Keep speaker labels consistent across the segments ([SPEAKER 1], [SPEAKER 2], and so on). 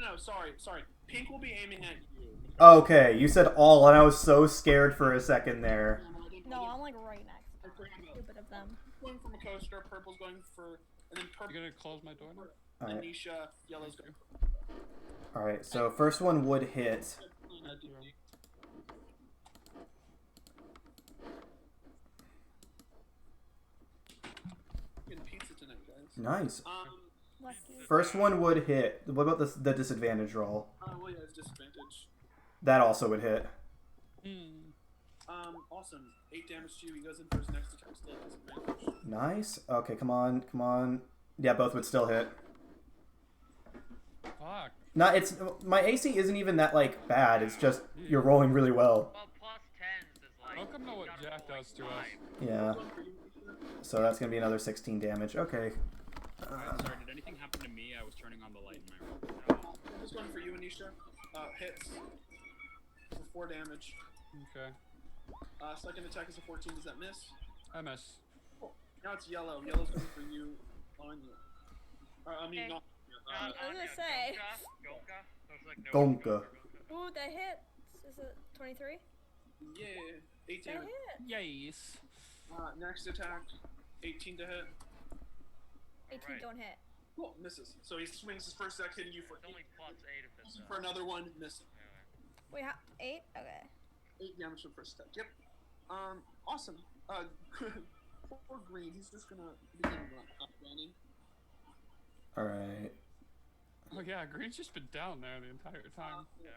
[SPEAKER 1] no, sorry, sorry. Pink will be aiming at you.
[SPEAKER 2] Okay, you said all, and I was so scared for a second there.
[SPEAKER 3] No, I'm like right next. to them.
[SPEAKER 1] Purple's
[SPEAKER 3] Stupid of them.
[SPEAKER 1] going from a coaster, purple's going for, and then
[SPEAKER 4] You
[SPEAKER 1] purple,
[SPEAKER 4] gonna close my door now?
[SPEAKER 2] Alright,
[SPEAKER 1] Anisha, yellow's going for
[SPEAKER 2] alright, so first one would hit.
[SPEAKER 1] Luna, do you- Getting pizza tonight, guys.
[SPEAKER 2] Nice.
[SPEAKER 1] Um,
[SPEAKER 3] Lucky.
[SPEAKER 2] First one would hit. What about the, the disadvantage roll?
[SPEAKER 1] uh, well, yeah, it's disadvantage.
[SPEAKER 2] That also would hit.
[SPEAKER 4] Hmm.
[SPEAKER 1] Um, awesome. Eight damage to you. He goes in for his next attack. Still has advantage.
[SPEAKER 2] Nice. Okay, come on, come on. Yeah, both would still hit.
[SPEAKER 4] Fuck.
[SPEAKER 2] Not it's my AC isn't even that like bad. It's just you're rolling really well.
[SPEAKER 5] Well, plus tens is like.
[SPEAKER 4] Welcome to
[SPEAKER 5] you
[SPEAKER 4] what
[SPEAKER 5] gotta
[SPEAKER 4] Jack
[SPEAKER 5] roll, like,
[SPEAKER 4] does to us.
[SPEAKER 5] five.
[SPEAKER 2] Yeah.
[SPEAKER 1] One for you, Anisha.
[SPEAKER 2] So that's gonna be another 16 damage. Okay.
[SPEAKER 6] I'm sorry, did anything happen to me? I was turning on the light in my room. No.
[SPEAKER 1] This one for you, Anisha. Uh, hits. For four damage.
[SPEAKER 4] Okay.
[SPEAKER 1] Uh, second attack is a 14. Does that miss?
[SPEAKER 4] I miss.
[SPEAKER 1] Now it's yellow. Yellow's going for you, on you. Uh, I mean,
[SPEAKER 5] Okay.
[SPEAKER 1] not.
[SPEAKER 5] Uh,
[SPEAKER 1] Uh,
[SPEAKER 3] I was gonna
[SPEAKER 5] yeah,
[SPEAKER 3] say.
[SPEAKER 5] Gonka, Gonka. Sounds like no-
[SPEAKER 2] Gonka.
[SPEAKER 3] Ooh, that hit. Is it 23?
[SPEAKER 1] yeah, 8
[SPEAKER 3] That
[SPEAKER 1] damage.
[SPEAKER 3] hit.
[SPEAKER 4] Yes.
[SPEAKER 1] Uh, next attack, 18 to hit.
[SPEAKER 3] 18
[SPEAKER 5] Right.
[SPEAKER 3] don't hit.
[SPEAKER 1] Cool, misses. So he swings his first attack, hitting you for,
[SPEAKER 5] It's only plus eight if it's. uh,
[SPEAKER 1] for another one, missing.
[SPEAKER 3] Wait, how? 8? Okay.
[SPEAKER 1] 8 damage for the first attack. Yep. Um, awesome. Uh, poor Green, he's just gonna begin run, uh, running.
[SPEAKER 2] All right.
[SPEAKER 4] Oh yeah, Green's just been down there the entire time.
[SPEAKER 5] Yeah.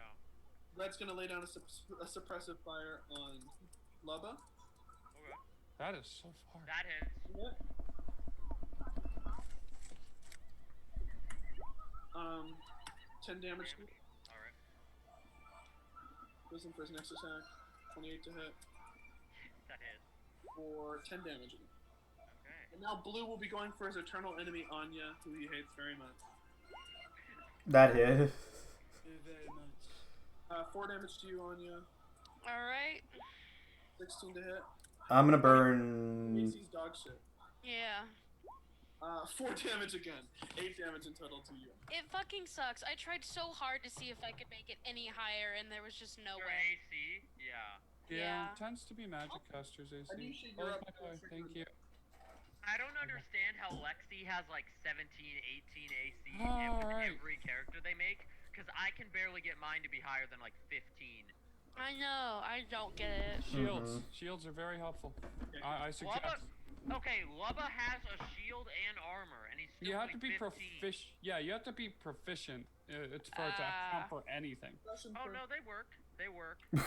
[SPEAKER 1] Red's gonna lay down a, sup- a suppressive fire on Lubba.
[SPEAKER 5] Okay.
[SPEAKER 4] That is so far.
[SPEAKER 5] That hits.
[SPEAKER 1] Um, 10 damage
[SPEAKER 5] Alright.
[SPEAKER 1] goes in for his next attack. 28 to hit
[SPEAKER 5] That hits.
[SPEAKER 1] for 10 damage.
[SPEAKER 5] Okay.
[SPEAKER 1] And now Blue will be going for his eternal enemy Anya, who he hates very much.
[SPEAKER 2] That hit.
[SPEAKER 1] Very much. Uh, 4 damage to you, Anya.
[SPEAKER 7] All right.
[SPEAKER 1] 16 to hit.
[SPEAKER 2] I'm gonna burn.
[SPEAKER 1] AC's dog shit.
[SPEAKER 7] Yeah.
[SPEAKER 1] Uh, 4 damage again. 8 damage in total to you.
[SPEAKER 7] It fucking sucks. I tried so hard to see if I could make it any higher, and there was just no
[SPEAKER 5] Your
[SPEAKER 7] way.
[SPEAKER 5] AC? Yeah.
[SPEAKER 4] Yeah,
[SPEAKER 7] Yeah.
[SPEAKER 4] tends to be magic casters, AC.
[SPEAKER 1] Anisha,
[SPEAKER 4] Oh,
[SPEAKER 1] you're up.
[SPEAKER 4] my God, thank you.
[SPEAKER 5] I don't understand how Lexi has like 17, 18 AC in
[SPEAKER 4] Alright.
[SPEAKER 5] every character they make, because I can barely get mine to be higher than like 15.
[SPEAKER 7] I know. I don't get it.
[SPEAKER 4] Shields. Shields are very helpful. I, I suggest.
[SPEAKER 5] Lubba, okay, Lubba has a shield and armor, and he's still
[SPEAKER 4] You have to
[SPEAKER 5] like
[SPEAKER 4] be
[SPEAKER 5] 15.
[SPEAKER 4] proficient. Yeah, you have to be proficient. uh, It's for it to
[SPEAKER 7] Ah.
[SPEAKER 4] account for anything.
[SPEAKER 1] Question
[SPEAKER 5] Oh
[SPEAKER 1] for-
[SPEAKER 5] no, they work. They work.
[SPEAKER 1] Uh,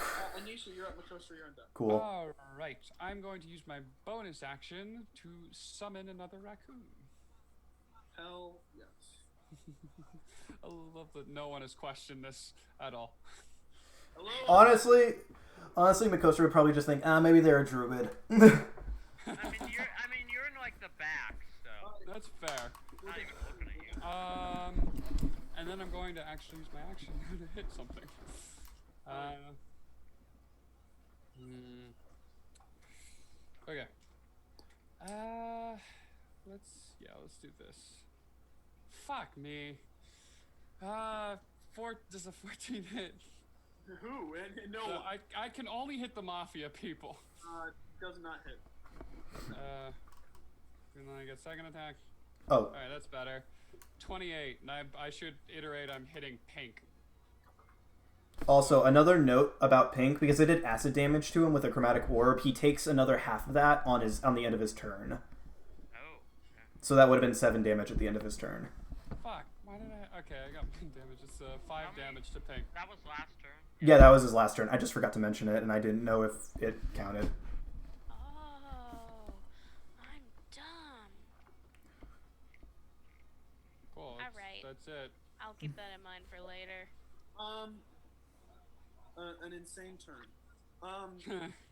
[SPEAKER 1] Anisha, you're up. Makostra, you're on deck.
[SPEAKER 2] Cool.
[SPEAKER 4] All right, I'm going to use my bonus action to summon another raccoon.
[SPEAKER 1] Hell yes.
[SPEAKER 4] I love that no one has questioned this at all.
[SPEAKER 1] Hello?
[SPEAKER 2] Uh, Honestly, honestly, Makostra would probably just think, ah, maybe they're a druid.
[SPEAKER 5] I mean, you're. I mean, you're in like the back, so
[SPEAKER 4] That's fair.
[SPEAKER 5] I'm not even looking at you.
[SPEAKER 4] Um, and then I'm going to actually use my action to hit something. Uh, hmm. Okay. Uh, let's yeah, let's do this. Fuck me. Uh, four. Does a fourteen hit?
[SPEAKER 1] Who? And, and no,
[SPEAKER 4] So
[SPEAKER 1] one.
[SPEAKER 4] I I can only hit the mafia people.
[SPEAKER 1] uh, does not hit.
[SPEAKER 4] Uh, and then I get second attack.
[SPEAKER 2] oh,
[SPEAKER 4] All right, that's better. Twenty-eight, and I I should iterate. I'm hitting pink.
[SPEAKER 2] also another note about Pink because I did acid damage to him with a chromatic orb. He takes another half of that on his on the end of his turn.
[SPEAKER 5] Oh. okay.
[SPEAKER 2] So that would have been seven damage at the end of his turn.
[SPEAKER 4] Fuck. Why did I? Okay, I got pink damage. It's uh, five
[SPEAKER 5] How many-
[SPEAKER 4] damage to pink.
[SPEAKER 5] That was last turn.
[SPEAKER 2] Yeah, that was his last turn. I just forgot to mention it, and I didn't know if it counted.
[SPEAKER 7] Oh, I'm dumb.
[SPEAKER 4] Cool. that's-
[SPEAKER 7] right.
[SPEAKER 4] That's it.
[SPEAKER 7] I'll keep that in mind for later.
[SPEAKER 1] Um, uh, an insane turn. Um,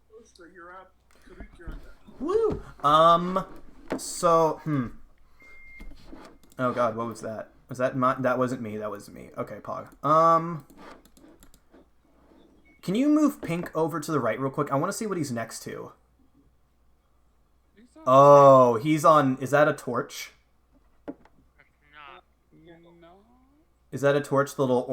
[SPEAKER 1] Costa, you're up. Karuk, you're on deck.
[SPEAKER 2] Woo! Um, so, hmm. Oh god, what was that? Was that my, that wasn't me, that was me. Okay, Pog. Um, can you move Pink over to the right real quick? I want to see what he's next to.
[SPEAKER 4] He's not-
[SPEAKER 2] Oh, he's on, is that a torch?
[SPEAKER 5] Nah.
[SPEAKER 4] No.
[SPEAKER 2] Is that a torch, the little